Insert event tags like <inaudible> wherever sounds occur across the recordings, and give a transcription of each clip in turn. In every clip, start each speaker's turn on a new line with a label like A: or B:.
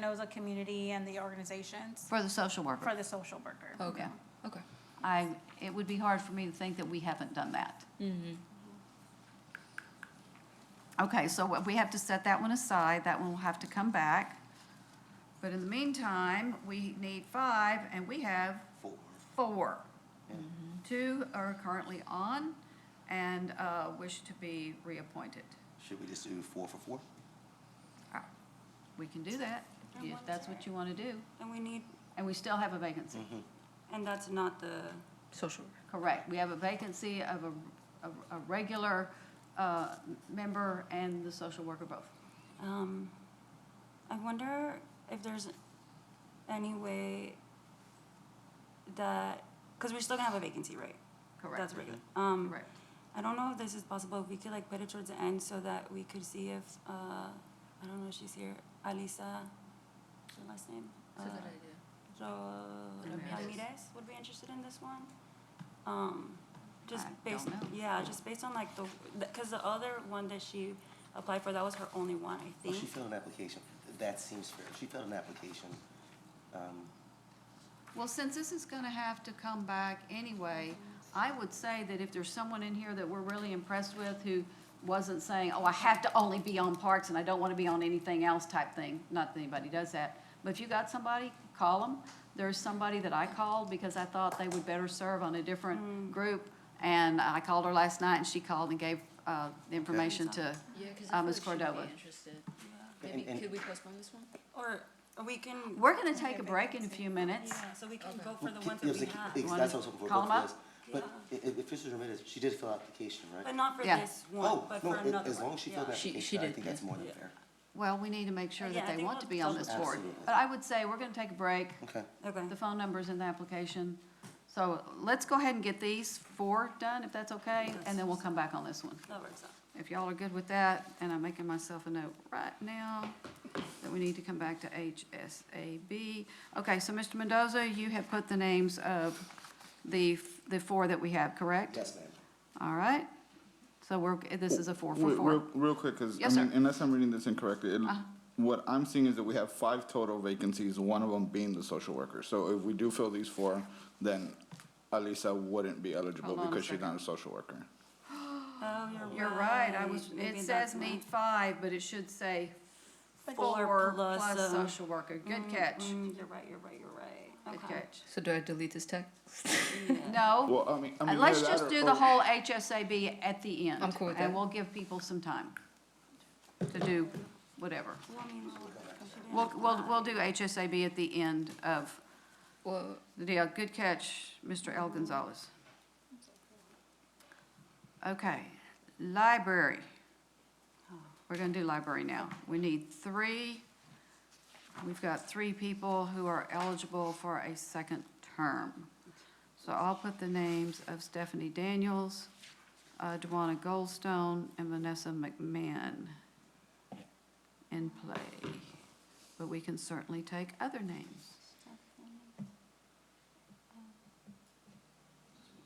A: knows a community and the organizations
B: For the social worker?
A: for the social worker.
C: Okay, okay.
B: I, it would be hard for me to think that we haven't done that. Okay, so what- we have to set that one aside, that one will have to come back. But in the meantime, we need five, and we have four. Two are currently on and uh, wish to be reappointed.
D: Should we just do four for four?
B: Uh, We can do that,
E: And
B: if
E: one's
B: that's what you want to do.
E: And we need,
B: And we still have a vacancy.
E: and that's not the,
C: Social worker.
B: Correct. We have a vacancy of a, of a regular uh, member and the social worker both.
E: um, I wonder if there's any way that, because we're still gonna have a vacancy, right?
B: Correct.
E: That's regular. Um,
B: Correct.
E: I don't know if this is possible, if we could like put it towards the end so that we could see if, uh, I don't know if she's here, Alisa, what's her last name? Uh, Ro-
C: Ramirez.
E: Ramirez would be interested in this one. Um, just
B: I
E: based,
B: don't know.
E: yeah, just based on like the, because the other one that she applied for, that was her only one, I
D: Well, Oh, she
E: think.
D: filled an application, that seems fair, she filled an application, um,
B: Well, since this is going to have to come back anyway, I would say that if there's someone in here that we're really impressed with who wasn't saying, oh, I have to only be on parks and I don't want to be on anything else type thing, not that anybody does that, but if you got somebody, call them. There's somebody that I called because I thought they would better serve on a
E: Mm.
B: different group, and I called her last night and she called and gave uh, the information to,
C: Yeah, because
B: Uh,
C: I feel
B: Ms.
C: like she would
B: Cordova.
C: be interested.
D: And-
C: Maybe,
D: and-
C: could we postpone this one?
E: Or we can.
B: we're going to take a break in a few minutes.
E: Yeah, so we can go for
D: Well,
E: the
D: it-
E: ones
D: it
E: that
D: was
E: we
D: a-
E: have,
D: it-
B: Wanna
D: That's what I was hoping for,
B: call
D: both
B: 'em up?
D: of us. But i- i- if Mrs. Ramirez, she did fill out application,
E: but
D: right?
E: not for
B: Yeah.
E: this one,
D: Oh,
E: but
D: no,
E: for
D: a-
E: another
D: as long
E: one.
D: as she filled
E: Yeah.
D: the
C: She- she
D: application, I
C: did
D: think that's
C: then.
D: more than
E: Yeah.
D: fair.
B: Well, we need to make sure
E: Yeah, I
B: that they
E: think
B: want
E: we'll
B: to be on
E: double
B: this
E: check.
B: board.
D: Absolutely.
B: But I would say we're going to take a break.
D: Okay.
E: Okay,
B: The phone number's in the application. So let's go ahead and get these four done, if that's okay, and then we'll come back on this one.
E: that works out.
B: If y'all are good with that, and I'm making myself a note right now that we need to come back to HSAB. Okay, so Mr. Mendoza, you have put the names of the, the four that we have, correct?
D: Yes, ma'am.
B: All right. So we're, this is a four for
F: Wait,
B: four.
F: Real, real quick, because, I
B: Yes,
F: mean,
B: sir. Uh-huh.
F: unless I'm reading this incorrectly, it- what I'm seeing is that we have five total vacancies, one of them being the social worker. So if we do fill these four, then Alisa wouldn't be eligible
B: Hold on a
F: because she's
B: second.
F: not a social worker.
E: Oh,
B: You're right, I was,
E: Maybe
B: it
E: that's
B: says
E: why.
B: need five, but it should say
E: Four
B: four
E: plus,
B: plus
E: uh,
B: social worker. Good catch,
E: Mm, You're right, you're right, you're right.
B: good
E: Okay.
B: catch.
C: So do I delete this text?
B: No,
F: Well, I mean, I mean.
B: and Oh. Uh, let's
F: either that
B: just
F: or-
B: do the
F: or-
B: whole HSAB at the end.
C: I'm cool with
B: And
C: that.
B: we'll give people some time to do whatever.
E: Well, I mean, we should
B: We'll, we'll,
E: have-
B: we'll do HSAB at the end of
C: <laughs> Well,
B: the deal. Good catch, Mr. El Gonzalez. Okay, library. We're gonna do library now. We need three. We've got three people who are eligible for a second term. So I'll put the names of Stephanie Daniels, uh, Dwana Goldstone, and Vanessa McMahon in play. But we can certainly take other names.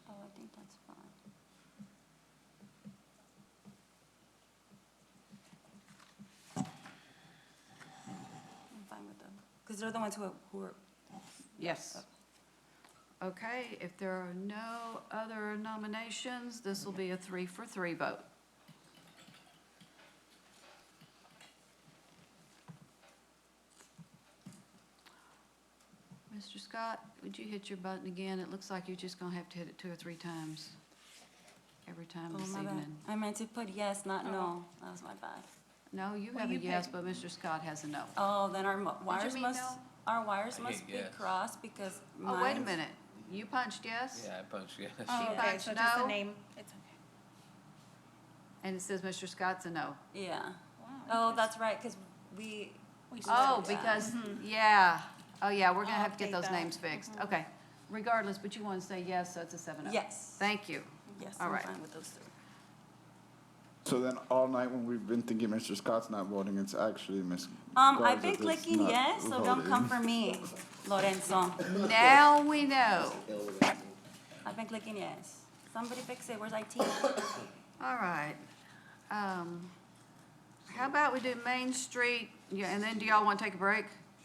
E: Oh, I think that's fine. I'm fine with them, because they're the ones who, are- who are,
B: Yes. Okay, if there are no other nominations, this will be a three for three vote. Mr. Scott, would you hit your button again? It looks like you're just gonna have to hit it two or three times every time
E: oh,
B: this
E: my bad.
B: evening.
E: I meant to put yes,
B: Oh.
E: not no, that was my bad.
B: No, you have a yes, but Mr. Scott has a no.
E: Oh, then our mo- wires
B: mean
E: must,
B: no?
E: our wires
G: I
E: must
G: hit
E: be
G: yes.
E: crossed, because mine.
B: Oh, wait a minute. You punched yes?
G: Yeah, I punched you.
A: Oh,
B: She
A: okay, so
B: punched
A: just the
B: no.
A: name, it's okay.
B: And it says Mr. Scott's a no.
E: Yeah.
A: Wow,
E: Oh, that's right, because we. we should-
B: Oh,
E: yeah.
B: because, yeah, oh, yeah, we're gonna have to get
A: I'll update
B: those
A: that. Mm-hmm.
B: names fixed, okay. Regardless, but you wanna say yes, so it's a seven oh.
E: Yes,
B: Thank you.
E: yes,
B: all
E: I'm
B: right.
E: fine with those three.
F: So then all night when we've been thinking Mr. Scott's not voting, it's actually Ms.
E: Um, I've
F: Garza
E: been
F: that's
E: clicking
F: not
E: yes, so don't come
F: voting.
E: for me, Lorenzo.
B: Now we know.
E: I've been clicking yes. Somebody fix it, where's <coughs> IT?
B: All right. Um, how about we do Main Street, yeah, and then do y'all wanna take a break?